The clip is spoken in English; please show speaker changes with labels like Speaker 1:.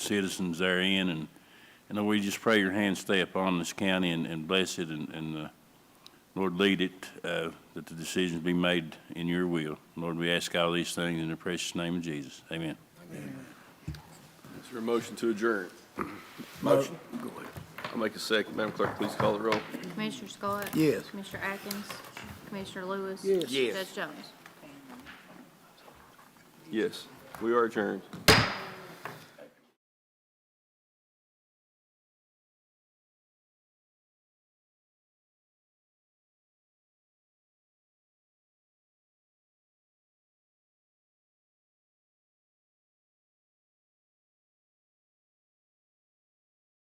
Speaker 1: citizens therein, and, and Lord, we just pray your hand stay upon this county and, and bless it, and, and, uh, Lord, lead it, uh, that the decisions be made in your will. Lord, we ask all these things in the precious name of Jesus. Amen.
Speaker 2: Is there a motion to adjourn?
Speaker 3: Motion.
Speaker 2: I'll make a second. Madam Clerk, please call the roll.
Speaker 4: Commissioner Scott?
Speaker 3: Yes.
Speaker 4: Commissioner Atkins? Commissioner Lewis?
Speaker 3: Yes. Yes.
Speaker 4: Judge Jones?
Speaker 2: Yes, we are adjourned.